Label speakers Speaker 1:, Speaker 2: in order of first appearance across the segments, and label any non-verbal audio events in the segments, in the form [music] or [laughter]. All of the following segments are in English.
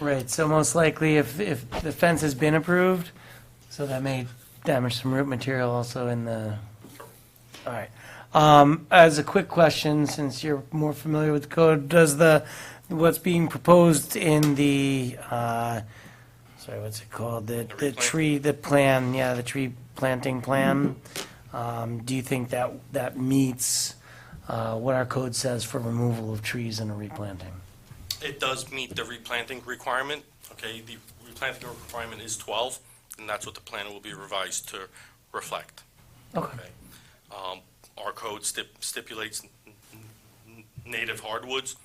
Speaker 1: Right, so most likely if, if the fence has been approved, so that may damage some root material also in the, all right. Um, as a quick question, since you're more familiar with the code, does the, what's being proposed in the, uh, sorry, what's it called? The, the tree, the plan, yeah, the tree planting plan, um, do you think that, that meets, uh, what our code says for removal of trees and replanting?
Speaker 2: It does meet the replanting requirement, okay? The replanting requirement is 12, and that's what the plan will be revised to reflect.
Speaker 1: Okay.
Speaker 2: Um, Our code stip- stipulates n- n- native hardwoods,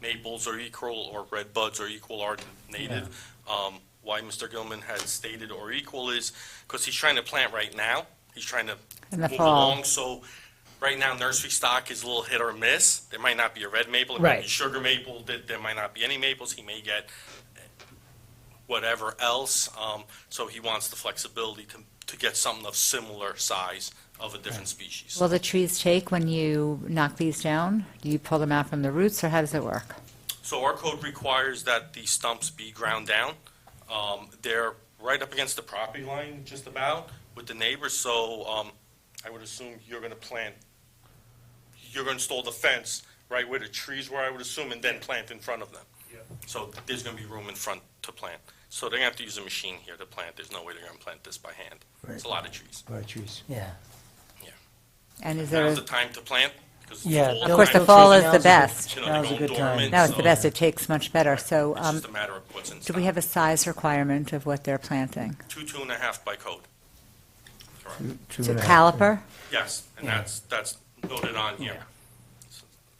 Speaker 2: maples are equal, or red buds are equal are native. Um, Why Mr. Gilman has stated or equal is because he's trying to plant right now. He's trying to
Speaker 3: In the
Speaker 2: move
Speaker 3: fall.
Speaker 2: along, so right now nursery stock is a little hit or miss. There might not be a red maple, there might be
Speaker 1: Right.
Speaker 2: sugar maple, there, there might not be any maples, he may get whatever else, um, so he wants the flexibility to, to get something of similar size of a different species.
Speaker 3: Will the trees take when you knock these down? Do you pull them out from the roots, or how does it work?
Speaker 2: So our code requires that the stumps be ground down. Um, They're right up against the property line, just about, with the neighbors, so um, I would assume you're going to plant, you're going to install the fence right where the trees were, I would assume, and then plant in front of them. So there's going to be room in front to plant. So they're going to have to use a machine here to plant. There's no way they're going to plant this by hand. It's a lot of trees.
Speaker 1: Yeah.
Speaker 3: And is there,
Speaker 2: Now's
Speaker 3: a-
Speaker 2: the time to plant, because it's
Speaker 1: Yeah,
Speaker 2: fall
Speaker 3: of course, the
Speaker 2: time.
Speaker 1: Now's
Speaker 3: fall is
Speaker 1: a
Speaker 3: the
Speaker 1: good-
Speaker 3: best.
Speaker 2: You know, they
Speaker 1: now's a
Speaker 2: go
Speaker 1: good time.
Speaker 2: dormant,
Speaker 3: Now it's
Speaker 2: so
Speaker 3: the best, it takes much better. So
Speaker 2: It's
Speaker 3: um,
Speaker 2: just a matter of what's in
Speaker 3: do
Speaker 2: stock.
Speaker 3: we have a size requirement of what they're planting?
Speaker 2: Two, two and a half by code. Correct.
Speaker 3: Is it caliper?
Speaker 2: Yes, and that's, that's noted on here.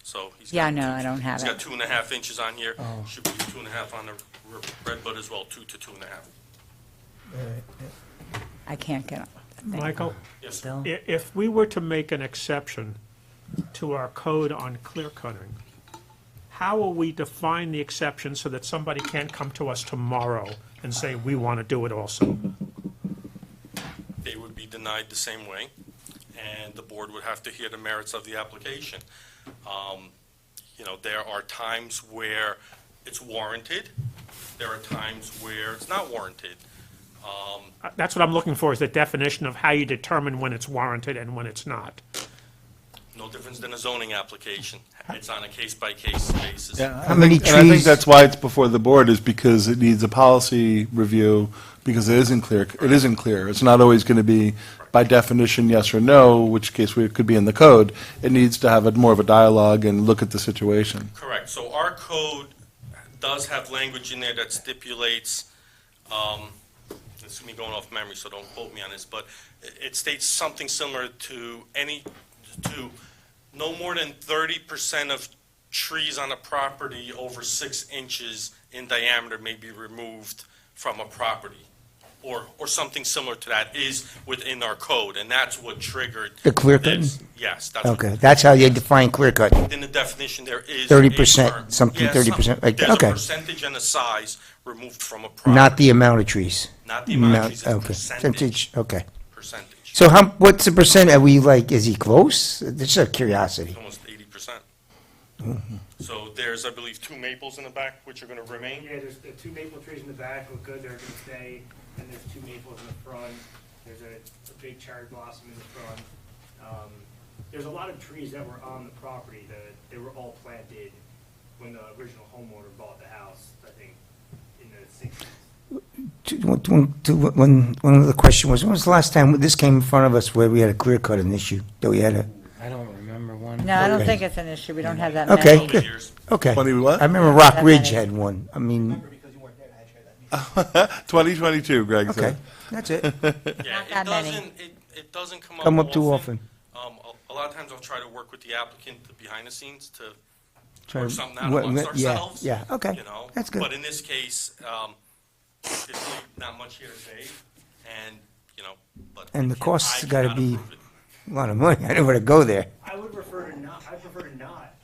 Speaker 2: So he's.
Speaker 3: Yeah,
Speaker 2: got
Speaker 3: no,
Speaker 2: two-
Speaker 3: I don't have
Speaker 2: He's got
Speaker 3: it.
Speaker 2: two and a half inches on here.
Speaker 1: Oh.
Speaker 2: Should be two and a half on the r- red bud as well, two to two and a half.
Speaker 3: I can't get it.
Speaker 4: Michael,
Speaker 2: Yes, sir.
Speaker 1: Bill?
Speaker 4: i- if we were to make an exception to our code on clear cutting, how will we define the exception so that somebody can't come to us tomorrow and say, we want to do it also?
Speaker 2: they would be denied the same way, and the board would have to hear the merits of the application. Um, You know, there are times where it's warranted, there are times where it's not warranted.
Speaker 4: Uh, That's what I'm looking for, is the definition of how you determine when it's warranted and when it's not.
Speaker 2: No difference than a zoning application. It's on a case-by-case basis.
Speaker 5: How many
Speaker 6: And I think
Speaker 5: trees-
Speaker 6: that's why it's before the board, is because it needs a policy review, because it isn't clear, it isn't clear. It's not always going to be by definition, yes or no, which case we, it could be in the code. It needs to have a, more of a dialogue and look at the situation.
Speaker 2: Correct. So our code does have language in there that stipulates, um, this is me going off memory, so don't quote me on this, but i- it states something similar to any, to no more than thirty percent of trees on a property over six inches in diameter may be removed from a property, or, or something similar to that is within our code, and that's what triggered.
Speaker 7: The clear cutting?
Speaker 2: this. Yes, that's. what-
Speaker 7: Okay, that's how you define clear cut.
Speaker 2: in the definition, there is.
Speaker 7: 30%,
Speaker 2: a term.
Speaker 7: something
Speaker 2: Yeah,
Speaker 7: 30%,
Speaker 2: some-
Speaker 7: like that, okay.
Speaker 2: There's a percentage and a size removed from a property.
Speaker 7: Not the amount of trees.
Speaker 2: Not the amount,
Speaker 7: Not-
Speaker 2: it's a
Speaker 7: okay.
Speaker 2: percentage.
Speaker 7: Okay.
Speaker 2: Percentage,
Speaker 7: So how, what's the percent? Are we like, is he close? This is a curiosity.
Speaker 2: almost eighty percent.
Speaker 7: Mm-hmm.
Speaker 2: So there's, I believe, two maples in the back which are gonna remain.
Speaker 8: Yeah, there's the two maple trees in the back look good, they're gonna stay, and there's two maples in the front, there's a, a big cherry blossom in the front. Um, There's a lot of trees that were on the property that, they were all planted when the original homeowner bought the house, I think, in the sixties.
Speaker 7: To- to- to- When, one of the question was, when was the last time this came in front of us where we had a clear cut an issue? That we had a,
Speaker 1: I don't remember one.
Speaker 3: No, I don't
Speaker 7: Okay.
Speaker 3: think it's an issue. We don't have that
Speaker 7: Okay.
Speaker 3: many.
Speaker 2: Over the years,
Speaker 7: okay.
Speaker 6: Twenty what?
Speaker 7: I remember Rock
Speaker 3: That
Speaker 7: Ridge
Speaker 3: many.
Speaker 7: had one. I mean,
Speaker 6: [laughs] Twenty twenty-two, Greg
Speaker 7: okay,
Speaker 6: said.
Speaker 7: that's it.
Speaker 2: yeah,
Speaker 3: Not
Speaker 2: it
Speaker 3: that many.
Speaker 2: doesn't, it, it doesn't come up
Speaker 7: Come up too often.
Speaker 2: Um, a, a lot of times I'll try to work with the applicant to behind the scenes to
Speaker 7: Try
Speaker 2: work
Speaker 7: to-
Speaker 2: something out
Speaker 7: what-
Speaker 2: amongst
Speaker 7: what- yeah,
Speaker 2: ourselves.
Speaker 7: yeah, okay.
Speaker 2: You know?
Speaker 7: That's good.
Speaker 2: But in this case, um, there's really not much here today, and, you know, but.
Speaker 7: And the
Speaker 2: I
Speaker 7: costs
Speaker 2: cannot
Speaker 7: gotta be-
Speaker 2: approve it.
Speaker 7: A lot of money. I didn't want to go there.
Speaker 8: I would prefer to not, I prefer to not.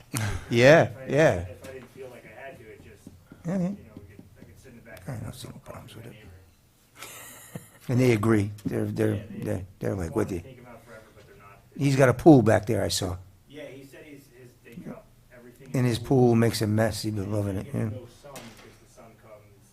Speaker 7: Yeah,
Speaker 8: If I-
Speaker 7: yeah.
Speaker 8: If I didn't feel like I had to, it just, you know,
Speaker 7: Okay.
Speaker 8: we could, I could sit in the back.
Speaker 7: I don't
Speaker 8: and
Speaker 7: see no
Speaker 8: talk to
Speaker 7: problems
Speaker 8: my
Speaker 7: with it.
Speaker 8: neighbor.
Speaker 7: And they agree. They're, they're,
Speaker 8: Yeah, they-
Speaker 7: they're- they're like
Speaker 8: Want
Speaker 7: with
Speaker 8: to
Speaker 7: you.
Speaker 8: take 'em out forever, but they're not.
Speaker 7: He's got a pool back there, I saw.
Speaker 8: Yeah, he said he's, his, they drop everything.
Speaker 7: And his pool makes a mess. He's been loving it, yeah.
Speaker 8: Ghost